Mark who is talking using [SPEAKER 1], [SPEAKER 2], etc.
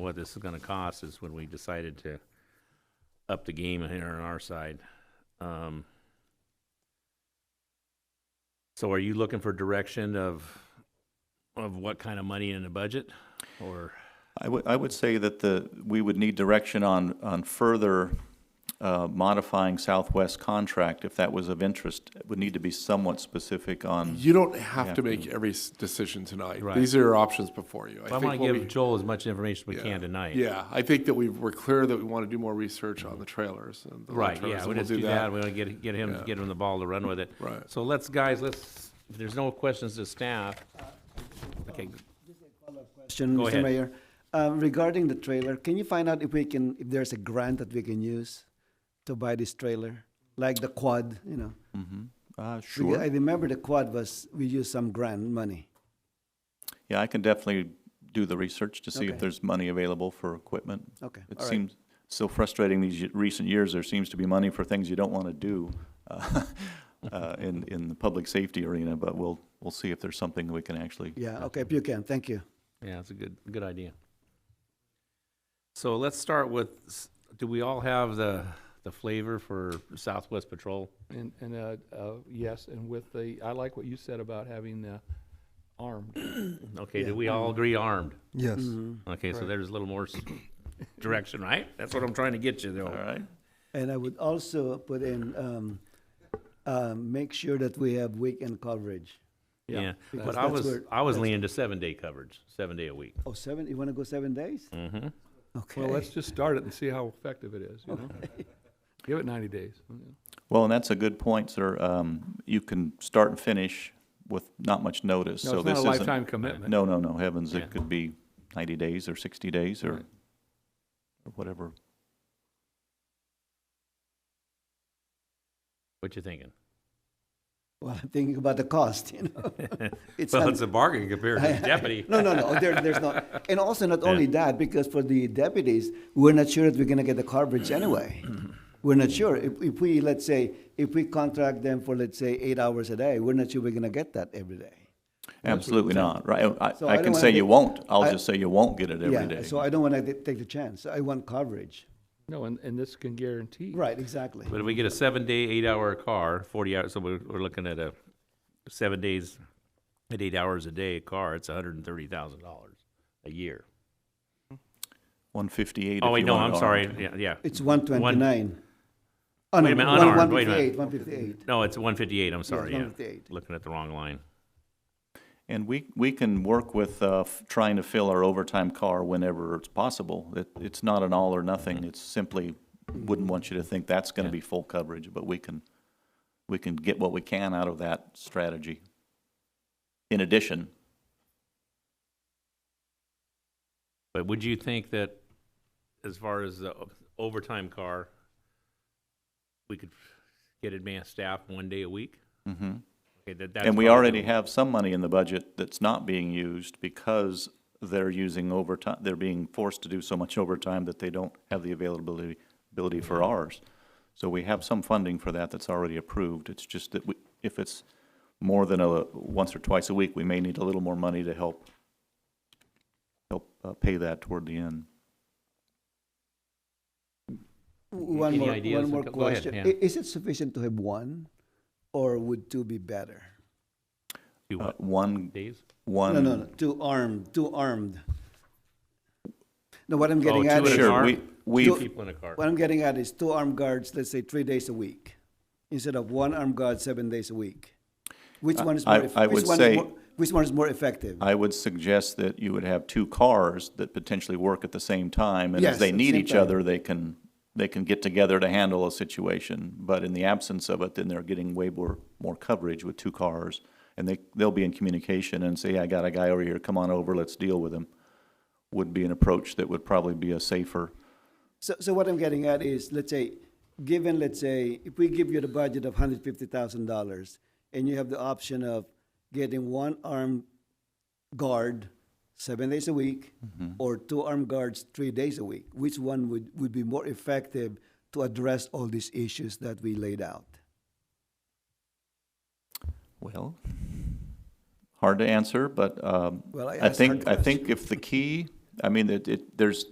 [SPEAKER 1] what this is gonna cost is when we decided to up the game here on our side. Um, So are you looking for direction of, of what kind of money in the budget, or?
[SPEAKER 2] I would, I would say that the, we would need direction on, on further uh, modifying Southwest contract if that was of interest. It would need to be somewhat specific on,
[SPEAKER 3] You don't have
[SPEAKER 2] Yeah.
[SPEAKER 3] to make every s- decision tonight.
[SPEAKER 1] Right.
[SPEAKER 3] These are your options before you.
[SPEAKER 1] I wanna
[SPEAKER 3] think what
[SPEAKER 1] give
[SPEAKER 3] we-
[SPEAKER 1] Joel as much information as we
[SPEAKER 3] yeah.
[SPEAKER 1] can tonight.
[SPEAKER 3] Yeah, I think that we were clear that we want to do more research on the trailers. and the
[SPEAKER 1] Right,
[SPEAKER 3] trailers,
[SPEAKER 1] yeah,
[SPEAKER 3] and
[SPEAKER 1] we
[SPEAKER 3] we'll
[SPEAKER 1] just do that, we wanna get, get him,
[SPEAKER 3] Yeah.
[SPEAKER 1] get him the ball to run with it.
[SPEAKER 3] Right.
[SPEAKER 1] So let's, guys, let's, if there's no questions to staff, okay,
[SPEAKER 4] Question,
[SPEAKER 1] Go ahead.
[SPEAKER 4] Mr. Mayor. Uh, Regarding the trailer, can you find out if we can, if there's a grant that we can use to buy this trailer? Like the quad, you know? Mm-hmm.
[SPEAKER 2] uh,
[SPEAKER 4] Because I
[SPEAKER 2] sure.
[SPEAKER 4] remember the quad was, we used some grant money.
[SPEAKER 2] Yeah, I can definitely do the research to see if
[SPEAKER 4] Okay.
[SPEAKER 2] there's money available for equipment.
[SPEAKER 4] Okay,
[SPEAKER 2] It
[SPEAKER 4] all right.
[SPEAKER 2] seems so frustrating these y- recent years, there seems to be money for things you don't want to do uh, uh, in, in the public safety arena, but we'll, we'll see if there's something we can actually.
[SPEAKER 4] Yeah, okay, if you can, thank you.
[SPEAKER 1] yeah, that's a good, good idea. So let's start with, s- do we all have the, the flavor for Southwest Patrol?
[SPEAKER 5] And, and, uh, uh, yes, and with the, I like what you said about having the armed.
[SPEAKER 1] Okay, do
[SPEAKER 4] Yeah.
[SPEAKER 1] we all agree armed?
[SPEAKER 6] Yes.
[SPEAKER 1] Okay, so
[SPEAKER 5] Correct.
[SPEAKER 1] there's a little more s- direction, right? That's what I'm trying to get you
[SPEAKER 2] All
[SPEAKER 1] though.
[SPEAKER 2] right.
[SPEAKER 4] And I would also put in, um, uh, make sure that we have weekend coverage.
[SPEAKER 1] Yeah,
[SPEAKER 4] Because
[SPEAKER 1] but I
[SPEAKER 4] that's
[SPEAKER 1] was,
[SPEAKER 4] where-
[SPEAKER 1] I was leaning to seven day coverage, seven day a week.
[SPEAKER 4] Oh, seven, you wanna go seven days?
[SPEAKER 1] Mm-hmm.
[SPEAKER 4] Okay.
[SPEAKER 5] Well, let's just start it and see how effective it is, you know? Give it ninety days.
[SPEAKER 2] Well, and that's a good point, sir. Um, you can start and finish with not much notice,
[SPEAKER 5] No,
[SPEAKER 2] so
[SPEAKER 5] it's not
[SPEAKER 2] this
[SPEAKER 5] a
[SPEAKER 2] isn't.
[SPEAKER 5] lifetime commitment.
[SPEAKER 2] No, no, no, heavens,
[SPEAKER 1] Yeah.
[SPEAKER 2] it could be ninety days or sixty days or
[SPEAKER 5] Right.
[SPEAKER 2] or whatever.
[SPEAKER 1] What you thinking?
[SPEAKER 4] Well, I'm thinking about the cost, you know? It's
[SPEAKER 1] Well,
[SPEAKER 4] un-
[SPEAKER 1] it's a bargain compared to the deputy.
[SPEAKER 4] No, no, no. There, there's not. And also, not only that, because for the deputies, we're not sure that we're going to get the coverage anyway. We're not sure. If, if we, let's say, if we contract them for, let's say, eight hours a day, we're not sure we're going to get that every day.
[SPEAKER 2] Absolutely not, right? I,
[SPEAKER 4] So
[SPEAKER 2] I
[SPEAKER 4] I don't
[SPEAKER 2] can
[SPEAKER 4] wanna
[SPEAKER 2] say
[SPEAKER 4] get-
[SPEAKER 2] you won't, I'll
[SPEAKER 4] I-
[SPEAKER 2] just say you won't get it every
[SPEAKER 4] Yeah,
[SPEAKER 2] day.
[SPEAKER 4] so I don't want to take the chance. I want coverage.
[SPEAKER 5] No, and, and this can guarantee.
[SPEAKER 4] Right, exactly.
[SPEAKER 1] But if we get a seven day, eight hour car, forty hours, so we're, we're looking at a seven days at eight hours a day car, it's hundred and thirty thousand dollars a year.
[SPEAKER 2] One fifty-eight
[SPEAKER 1] Oh,
[SPEAKER 2] if
[SPEAKER 1] wait,
[SPEAKER 2] you
[SPEAKER 1] no,
[SPEAKER 2] want
[SPEAKER 1] I'm
[SPEAKER 2] it
[SPEAKER 1] sorry,
[SPEAKER 2] armed.
[SPEAKER 1] yeah, yeah.
[SPEAKER 4] It's 129. Oh,
[SPEAKER 1] Wait a minute, unarmed, wait a minute.
[SPEAKER 4] 158, 158.
[SPEAKER 1] No, it's one fifty-eight, I'm sorry, yeah.
[SPEAKER 4] 158.
[SPEAKER 1] Looking at the wrong line.
[SPEAKER 2] And we, we can work with, uh, f- trying to fill our overtime car whenever it's possible. It, it's not an all or nothing, it's simply, wouldn't want you to think that's gonna
[SPEAKER 1] Yeah.
[SPEAKER 2] be full coverage, but we can, we can get what we can out of that strategy. In addition,
[SPEAKER 1] But would you think that as far as the overtime car, we could get advanced staff one day a week?
[SPEAKER 2] hmm
[SPEAKER 1] Okay, that- that's
[SPEAKER 2] And we
[SPEAKER 1] what I'm
[SPEAKER 2] already
[SPEAKER 1] thinking.
[SPEAKER 2] have some money in the budget that's not being used because they're using overtime, they're being forced to do so much overtime that they don't have the availability, ability for ours. So we have some funding for that that's already approved. It's just that we, if it's more than a, once or twice a week, we may need a little more money to help, help uh, pay that toward the end.
[SPEAKER 4] One
[SPEAKER 1] Any
[SPEAKER 4] more,
[SPEAKER 1] ideas?
[SPEAKER 4] one more
[SPEAKER 1] Go ahead,
[SPEAKER 4] question.
[SPEAKER 1] Hannah.
[SPEAKER 4] I- Is it sufficient to have one, or would two be better?
[SPEAKER 1] Do
[SPEAKER 2] Uh,
[SPEAKER 1] what,
[SPEAKER 2] One,
[SPEAKER 1] days?
[SPEAKER 2] one.
[SPEAKER 4] No, no, no, two armed, two armed. No, what I'm getting
[SPEAKER 1] Oh,
[SPEAKER 4] at
[SPEAKER 1] two
[SPEAKER 4] is,
[SPEAKER 1] in a car?
[SPEAKER 2] Sure, we, we've,
[SPEAKER 1] Two people in a car.
[SPEAKER 4] what I'm getting at is two armed guards, let's say, three days a week, instead of one armed guard, seven days a week. Which
[SPEAKER 2] I-
[SPEAKER 4] one is
[SPEAKER 2] I-
[SPEAKER 4] more, eff-
[SPEAKER 2] I
[SPEAKER 4] which
[SPEAKER 2] would
[SPEAKER 4] one is
[SPEAKER 2] say-
[SPEAKER 4] more, which one is more effective?
[SPEAKER 2] I would suggest that you would have two cars that potentially work at the same time, and
[SPEAKER 4] Yes,
[SPEAKER 2] as they
[SPEAKER 4] at the
[SPEAKER 2] need
[SPEAKER 4] same
[SPEAKER 2] each
[SPEAKER 4] time.
[SPEAKER 2] other, they can, they can get together to handle a situation. But in the absence of it, then they're getting way more, more coverage with two cars, and they, they'll be in communication and say, I got a guy over here, come on over, let's deal with him, would be an approach that would probably be a safer.
[SPEAKER 4] So, so what I'm getting at is, let's say, given, let's say, if we give you the budget of hundred fifty thousand dollars, and you have the option of getting one armed guard seven days a week, or two armed guards three days a week, which one would, would be more effective to address all these issues that we laid out?
[SPEAKER 2] Well. Hard to answer, but, um,
[SPEAKER 4] Well, I
[SPEAKER 2] I
[SPEAKER 4] asked
[SPEAKER 2] think,
[SPEAKER 4] hard
[SPEAKER 2] I think if the key, I mean, it, it, there's,